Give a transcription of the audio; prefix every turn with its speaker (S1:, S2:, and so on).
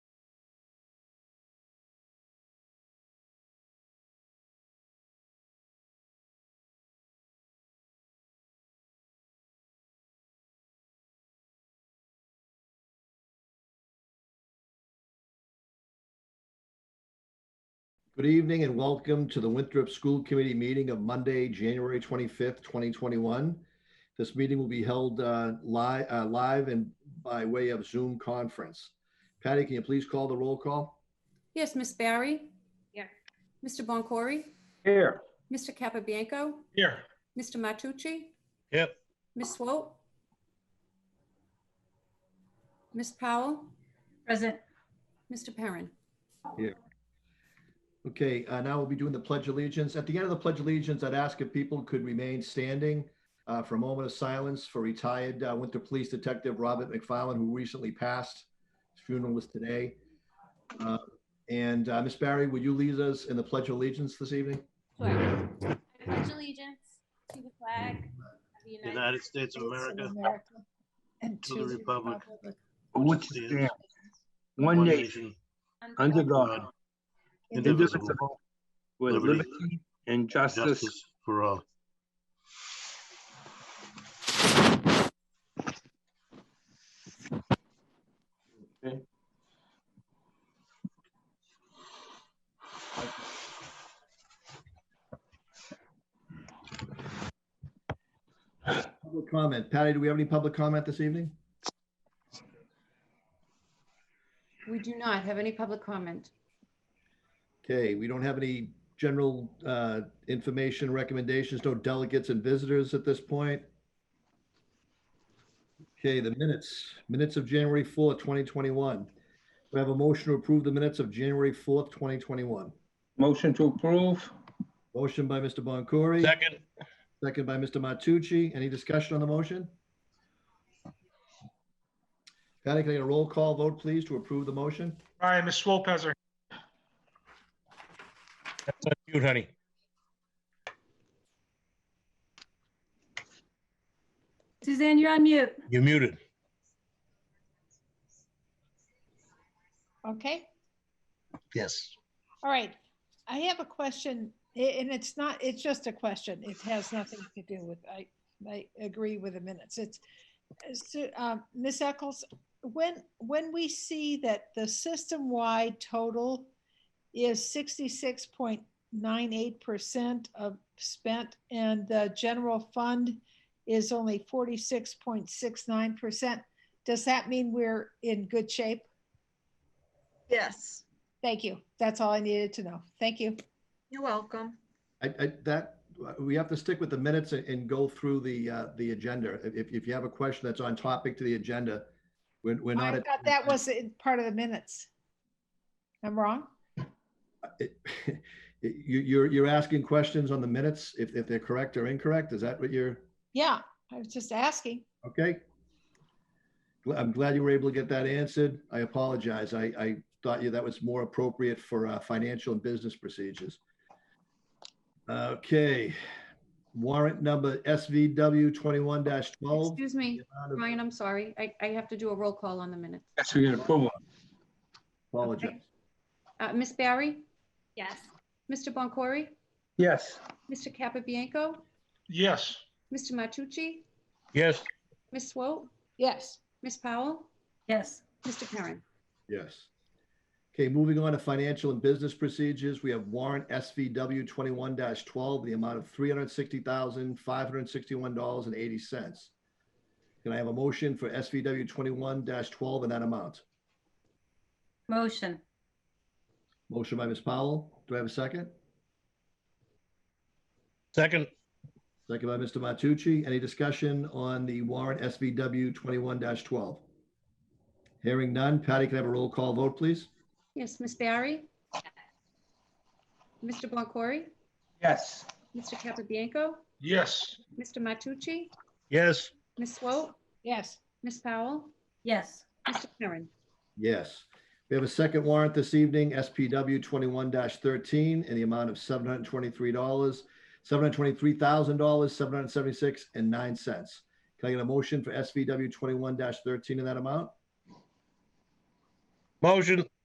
S1: Good evening and welcome to the Winthrop School Committee meeting of Monday, January 25th, 2021. This meeting will be held live, live and by way of Zoom conference. Patty, can you please call the roll call?
S2: Yes, Miss Barry?
S3: Here.
S2: Mr. Boncory?
S4: Here.
S2: Mr. Capabianco?
S4: Here.
S2: Mr. Matucci?
S4: Yep.
S2: Miss Swope? Miss Powell?
S3: Present.
S2: Mr. Perrin?
S1: Okay, uh, now we'll be doing the Pledge of Allegiance. At the end of the Pledge of Allegiance, I'd ask if people could remain standing uh, for a moment of silence for retired uh, Winthrop Police Detective Robert McFarland, who recently passed. His funeral was today. Uh, And uh, Ms. Barry, would you lead us in the Pledge of Allegiance this evening?
S3: Sure. I pledge allegiance to the flag of the United
S5: United States of America,
S6: and
S5: to the republic
S4: Which stands one nation, under God, indivisible, with
S5: liberty,
S4: liberty and
S5: uh, justice
S4: justice.
S5: for all.
S1: Public comment. Patty, do we have any public comment this evening?
S2: We do not have any public comment.
S1: Okay, we don't have any general uh, information recommendations, no delegates and visitors at this point. Okay, the minutes, minutes of January 4th, 2021. We have a motion to approve the minutes of January 4th, 2021.
S4: Motion to approve?
S1: Motion by Mr. Boncory. Second. Second by Mr. Matucci. Any discussion on the motion? Patty, can I get a roll call vote, please, to approve the motion?
S7: All right, Ms. Swolpezer,
S8: That's on mute, honey.
S3: Suzanne, you're on mute.
S8: You're muted.
S6: Okay,
S8: Yes.
S6: all right. I have a question, a- and it's not, it's just a question. It has nothing to do with, I, I agree with the minutes. It's, so, um, Ms. Eccles, when, when we see that the system-wide total is sixty-six point nine eight percent of spent and the general fund is only forty-six point six nine percent, does that mean we're in good shape?
S9: Yes,
S6: Thank you. That's all I needed to know. Thank you.
S9: you're welcome.
S1: I, I, that, we have to stick with the minutes and- and go through the, uh, the agenda. If, if you have a question that's on topic to the agenda, we're, we're not.
S6: I
S1: at-
S6: thought that was in part of the minutes. I'm wrong?
S1: It- You, you're, you're asking questions on the minutes, if, if they're correct or incorrect, is that what you're,
S6: Yeah, I was just asking.
S1: okay? Gl- I'm glad you were able to get that answered. I apologize. I, I thought you, that was more appropriate for, uh, financial and business procedures. Okay, warrant number SVW twenty-one twelve.
S2: Excuse me, Ryan, I'm sorry. I, I have to do a roll call on the minutes.
S4: Yes, we get approval.
S1: Apologize.
S2: Uh, Miss Barry?
S3: Yes.
S2: Mr. Boncory?
S4: Yes.
S2: Mr. Capabianco?
S7: yes.
S2: Mr. Matucci?
S8: Yes.
S2: Miss Swope?
S6: Yes.
S2: Miss Powell?
S3: Yes.
S2: Mr. Perrin?
S1: Yes. Okay, moving on to financial and business procedures, we have warrant SVW twenty-one twelve, the amount of three hundred sixty thousand, five hundred sixty-one dollars and eighty cents. Can I have a motion for SVW twenty-one twelve and that amount?
S3: Motion.
S1: Motion by Ms. Powell. Do I have a second?
S8: Second.
S1: Second by Mr. Matucci. Any discussion on the warrant SVW twenty-one twelve? Hearing none. Patty, can I have a roll call vote, please?
S2: Yes, Miss Barry? Mr. Boncory?
S4: Yes.
S2: Mr. Capabianco?
S7: Yes.
S2: Mr. Matucci?
S8: Yes.
S2: Miss Swope?
S6: Yes.
S2: Miss Powell?
S3: Yes.
S2: Mr. Perrin?
S1: Yes. We have a second warrant this evening, SPW twenty-one thirteen, in the amount of seven hundred and twenty-three dollars, seven hundred twenty-three thousand dollars, seven hundred seventy-six and nine cents. Can I get a motion for SVW twenty-one thirteen in that amount?
S8: Motion.